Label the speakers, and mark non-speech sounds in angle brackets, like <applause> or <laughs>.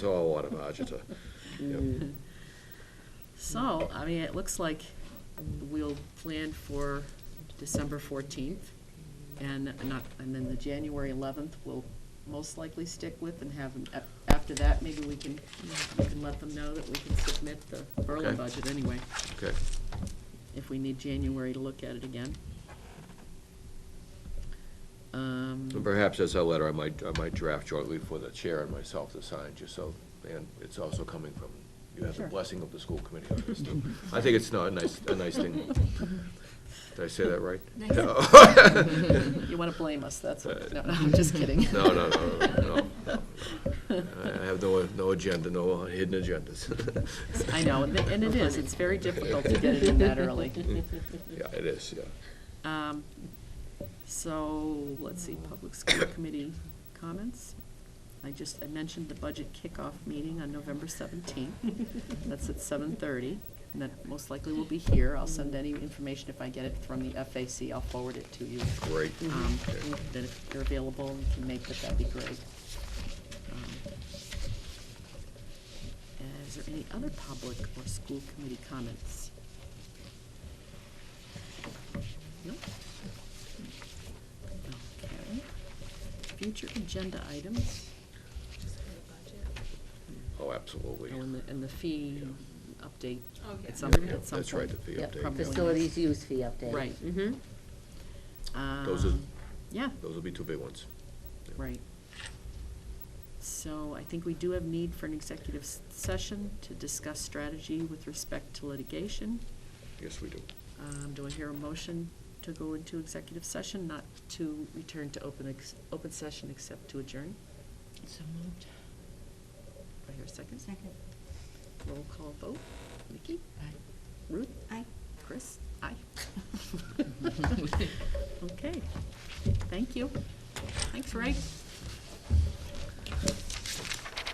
Speaker 1: It's all out of agita. Yep.
Speaker 2: <laughs> So, I mean, it looks like we'll plan for December fourteenth, and not, and then the January eleventh we'll most likely stick with and have, an- a- after that, maybe we can, we can let them know that we can submit the Berlin
Speaker 1: Okay.
Speaker 2: budget anyway,
Speaker 1: Okay,
Speaker 2: if we need January to look at it again. Um,
Speaker 1: and perhaps as a letter, I might, I might draft jointly for the chair and myself to sign, just so, and it's also coming from, you have the
Speaker 2: Sure.
Speaker 1: blessing of the school committee on this, too. I think it's not a nice, a nice
Speaker 2: <laughs>
Speaker 1: thing. Did I say that right?
Speaker 3: Nice.
Speaker 1: No.
Speaker 2: You wanna blame us, that's, what- no, no, I'm just kidding.
Speaker 1: Uh, No, no, no, no, no, no,
Speaker 2: <laughs>
Speaker 1: no. I I have no, no agenda, no hidden agendas.
Speaker 2: <laughs> I know, and it- and it is, it's very difficult to get it in that early.
Speaker 1: <laughs> Yeah, it is, yeah.
Speaker 2: Um, So, let's see,
Speaker 1: <coughs>
Speaker 2: Public School Committee comments. I just, I mentioned the budget kickoff meeting on November seventeenth. That's at seven thirty, and that most likely will be here. I'll send any information if I get it from the FAC, I'll forward it to you.
Speaker 1: Great.
Speaker 2: Um,
Speaker 1: Okay.
Speaker 2: Then if you're available and can make it, that'd be great. Um, uh, Is there any other public or school committee comments? No? Okay. Future agenda items,
Speaker 1: Oh, absolutely.
Speaker 2: oh, and the, and the fee update
Speaker 3: Okay.
Speaker 2: at some,
Speaker 1: Yeah, yeah,
Speaker 2: at some
Speaker 1: that's right,
Speaker 2: point.
Speaker 1: the fee
Speaker 2: Yeah,
Speaker 1: update,
Speaker 2: probably.
Speaker 4: Facilities use fee update.
Speaker 2: Right.
Speaker 4: Mm-hmm.
Speaker 1: Those are-
Speaker 2: Um, Yeah.
Speaker 1: Those will be two big ones.
Speaker 2: Right. So I think we do have need for an executive s- session to discuss strategy with respect to litigation.
Speaker 1: Yes, we do.
Speaker 2: Um, do I hear a motion to go into executive session, not to return to open ex, open session except to adjourn?
Speaker 3: So moved.
Speaker 2: Do I hear a second?
Speaker 3: Second.
Speaker 2: Roll call vote. Nikki? Ruth?
Speaker 3: Aye.
Speaker 2: Chris? <laughs> Aye. Okay. Thank you. Thanks, Ray.